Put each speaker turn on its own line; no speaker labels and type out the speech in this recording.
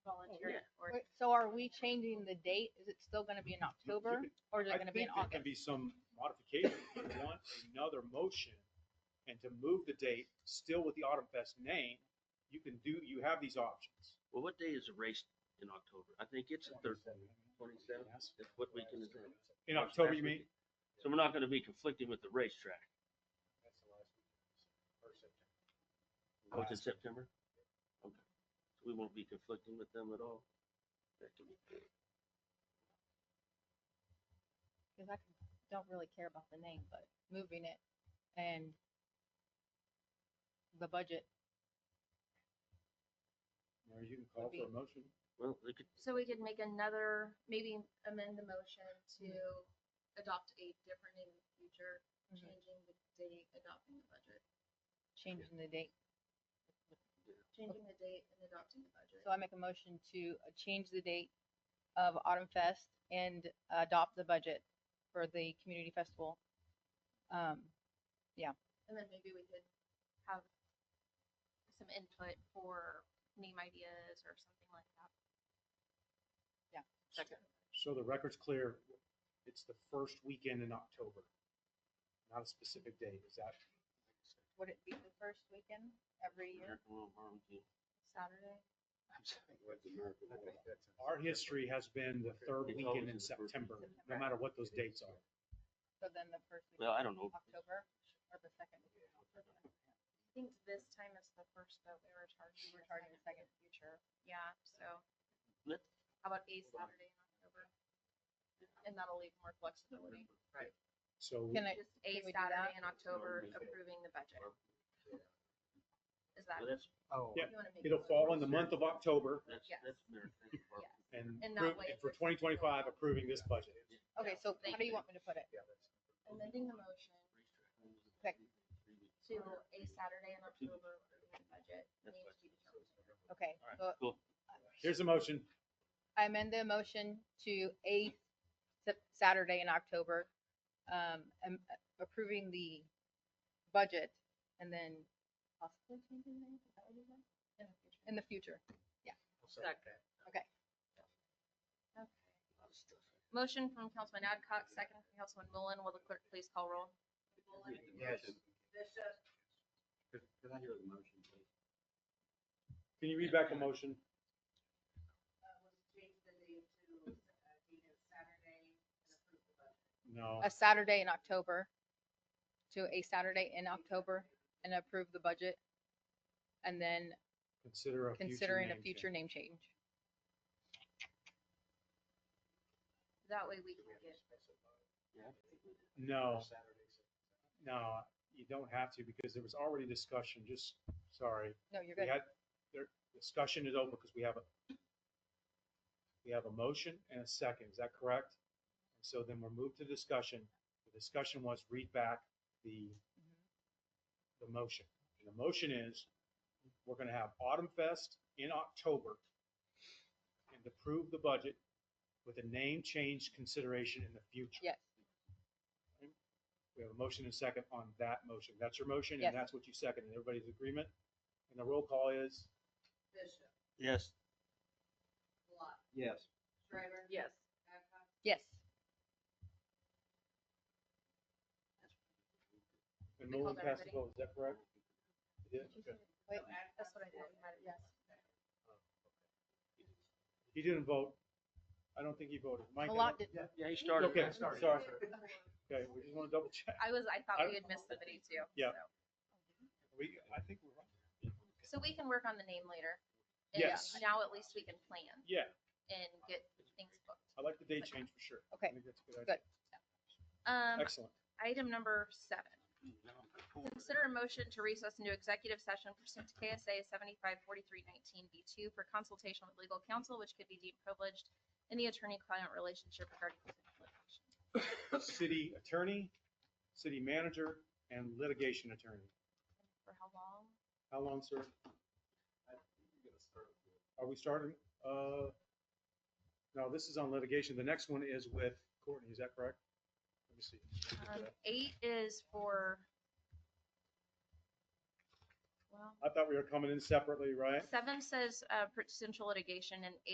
So are we changing the date? Is it still gonna be in October or is it
I
gonna be
think
in
there can
August?
be some modification if you want another motion and to move the date still with the Autumn Fest name, you can do, you have these options.
Well, what day is the race in October? I think it's the third, twenty-seventh,
Yes.
that's what weekend is that?
In October, you mean?
So we're not gonna be conflicting with the racetrack, which is September? Okay, so we won't be conflicting with them at all? That can be-
Cause I don't really care about the name, but moving it and the budget.
Mary, you can call for a motion.
Well, they could,
So we could make another, maybe amend the motion to adopt a different name in the future,
Mhm.
changing the date, adopting the budget,
changing the date.
changing the date and adopting the budget.
So I make a motion to uh, change the date of Autumn Fest and adopt the budget for the community festival. Um,
And then maybe we could have some input for name ideas or something like that.
So the record's clear, it's the first weekend in October, not a specific date, is that?
Would it be the first weekend every year?
American Little Barbecue.
Saturday.
Our history has been the third
It's
weekend in
always the first
September, no matter what those dates are.
So then the first weekend
Well, I don't know.
in October or the second? weekend in October?
I think this time is the first vote we were charging.
We
for
were targeting the second future.
Yeah, so.
Let-
How about a Saturday in October? And that'll leave more flexibility.
So
Can I,
Just a
Can we do that?
Saturday in October approving the budget. Is that?
Well, that's,
Oh.
Yeah.
you wanna make
it'll
it-
fall in the month of October
that's,
Yes.
that's American. Little Barbecue.
and
And that
appro-
way
and
it's
for
a-
twenty twenty-five approving this budget.
okay, so how do you want me to put it?
Amending the motion
Okay.
to a Saturday in October approving the budget
That's
needs
what-
to be determined.
Okay,
All right,
so
cool.
Here's a motion,
I amend the motion to a Sep- Saturday in October, um, am- approving the budget and then possibly changing the name, is that what you said?
in the future.
In the future.
Okay. Motion from Councilman Adcock, second from Councilman Mullen. Will the clerk please call roll?
Yes.
Can I hear the motion, please?
can you read back the motion? No,
A Saturday in October to a Saturday in October and approve the budget. And then
consider a future
considering a
name
future
change.
name change.
That way we can get,
No, no, you don't have to because there was already discussion, just, sorry.
No, you're
We
good.
had, their discussion is over because we have a, we have a motion and a second, is that correct? So then we're moved to discussion. The discussion was read back the,
Mm-hmm.
the motion. And the motion is, we're gonna have Autumn Fest in October and approve the budget with a name change consideration in the future.
Yes,
We have a motion and a second on that motion. That's your motion
Yes.
and that's what you second. And everybody's agreement? And the roll call is?
Bishop,
Yes.
Lot,
Yes.
Shriver,
yes,
Babcock,
yes.
And
We
Mullen
called
passed the
everybody.
vote, is that correct? He did? Okay.
Wait,
that's what I thought. you had it, Yes.
He didn't vote. I don't think he voted. Mike? I
Malat did-
don't-
Yeah, he started.
Okay,
last
sorry,
night.
sorry. Okay, we just want to double check.
I was, I
I-
thought we had missed somebody too.
Yeah.
so.
We, I think we're right.
So we can work on the name later. and
Yes.
Now at least we can plan
Yeah,
and get things booked.
I like the date change for sure. I
Okay,
think that's a good idea.
Um,
Excellent.
item number seven, consider a motion to recess into executive session pursuant to KSA seventy-five forty-three nineteen B two for consultation with legal counsel, which could be deemed privileged in the attorney-client relationship regarding potential litigation.
City attorney, city manager, and litigation attorney.
For how long?
How long, sir? Are we starting? Uh, no, this is on litigation. The next one is with Courtney, is that correct? Let me see.
Um, eight is for, well,
I thought we were coming in separately, right?
seven says, uh, potential litigation and eight